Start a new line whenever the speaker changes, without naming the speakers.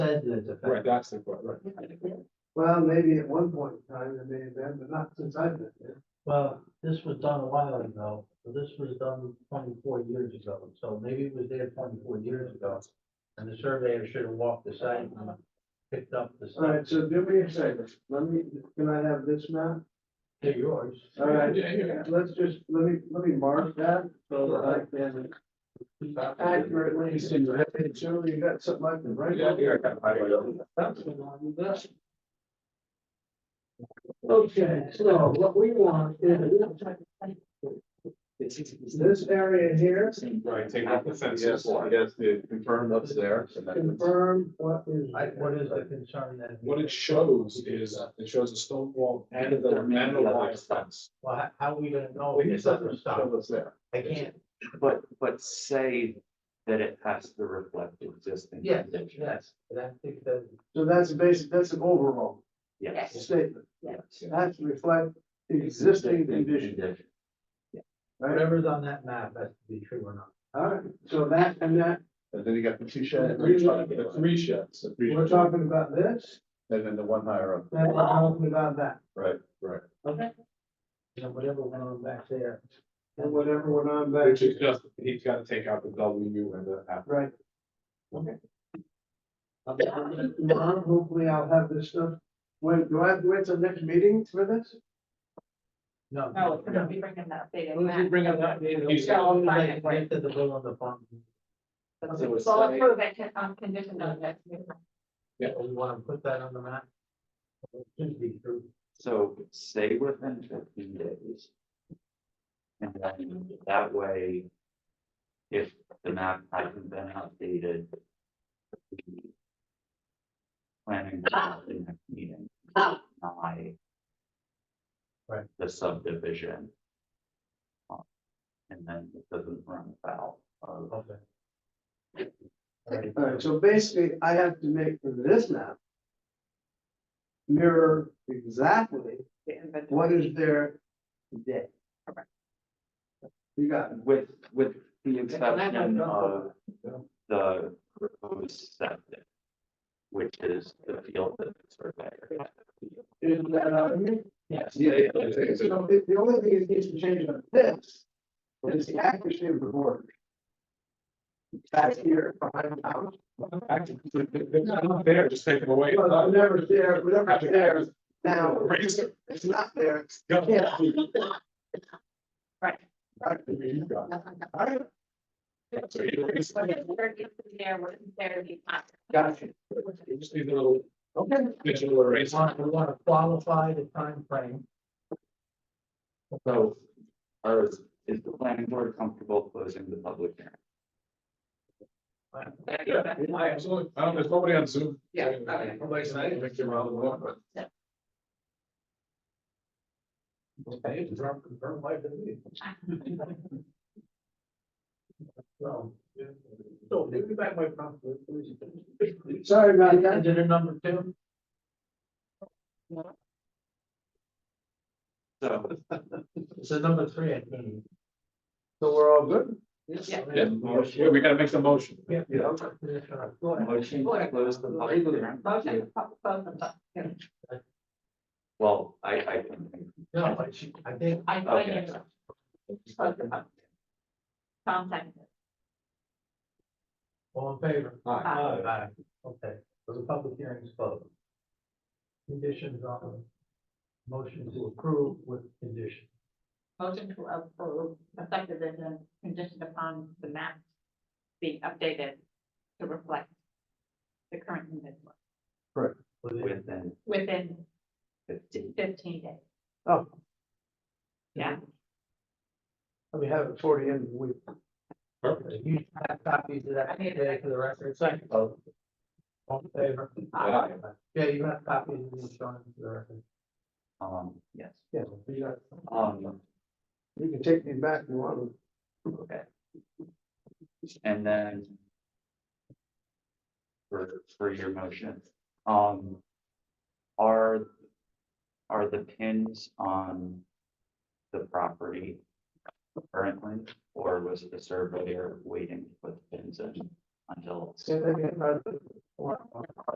incident
Right,
effect.
that's the question, right.
Well, maybe at one point in time it may have been, but not since I've been there.
Well, this was done a while ago, so this was done twenty-four years ago, so maybe it was there twenty-four years ago. And the surveyor should have walked the site and picked up the
All right,
site.
so do me a favor, let me, can I have this map?
They're yours.
All right,
Yeah, yeah.
let's just, let me, let me mark that so that I can accurately.
It's in your head.
Sure, you got something I can write.
Yeah, here, I got my wheel.
That's the one, that's- Okay, so what we want is this area here,
Right, take out the fence. Yes, yes, the confirmed up there. and that's-
confirm what is.
I, what is the concern then?
What it shows is, uh, it shows a stone wall and the, and the wire fence. Oh,
Well, how, how are we gonna know if it's up or
Show
stopped?
us there.
I can't,
But, but say that it has to reflect the existing.
yes,
condition.
yes, but I think that,
So that's basic, that's an overall
Yes.
statement, that's reflect existing condition, right?
whatever's on that map has to be true or not.
All right, so that and that,
And then you got the two sheds,
Three sheds, the three sheds, the three
we're
sheds.
talking about this,
and then the one higher up,
and we're talking about that,
right, right.
You know, whatever went on back there,
and whatever went on back.
Which is just, he's gotta take out the W and the F.
Right. Okay. Tomorrow, hopefully I'll have this stuff, when, do I have to wait till next meeting for this?
no.
No, no, we bring him that big.
Why don't you bring up that meeting?
He's
got Oh, all the money.
Like, wait till the bill on the phone.
So we'll approve it con- on condition of that.
We wanna put that on the map? It should be true.
So say within fifteen days. And then that way, if the map hasn't been updated. the Planning board at the next meeting. deny
Right.
The subdivision. um, And then it doesn't run afoul of.
Okay.
All right, so basically I have to make this map. Mirror exactly what is there today.
Correct.
You got it,
With, with the
I'm
exception
done.
of the proposed septic. Which is the field that the surveyor. had.
is that, uh, you-
Yes.
Yeah, yeah, yeah, yeah.
so the, the only thing that needs to change on this. Is the accuracy of the border. That's here behind the house.
Actually, they're- They're not there, just take them away.
Well, I'm never there, whatever
Actually,
there, now,
Raise it.
it's not there,
Go.
Yeah.
Right.
Actually, you got it. All right. So you raise
What
it.
is there, is there, what is there, the.
Gotcha.
You just need a little
Okay.
digital
We
eraser.
want, we wanna qualify the time frame.
So, are, is the planning board comfortable closing the public hearing?
Yeah, absolutely. I don't, there's nobody on Zoom.
Yeah, okay.
Nobody's not, Victor, around the block, but-
Okay, confirm, confirm by the meeting. So, so give me back my prompt, please.
Sorry about that.
And then a number two,
So,
it's a number three, I think.
So we're all good?
Yeah.
Yeah, yeah, we gotta make the motion.
Yeah.
Yeah.
Go ahead.
motion to close the public hearing.
Motion, both of them.
Well, I, I can,
No, but she, I think,
I, I
okay.
am. Both of them. Tom second.
all in favor?
Aye.
Aye. Okay, so the public hearing is closed. Conditions on motion to approve with condition.
Motion to approve, effective as a condition upon the map being updated to reflect the current condition
within-
within
within
fifteen.
fifteen days.
Oh.
Yeah.
We have it toward the end of the week.
You have copies of that
I need it.
today for the record, second. All in favor?
Aye.
Yeah, you have copies of these on the record.
Um, yes,
Yeah, we got-
um,
you can take me back if you want.
okay. And then. For, for your motion, um. Are, are the pins on the property currently, or was the surveyor waiting to put the pins in until?
Say that again, uh,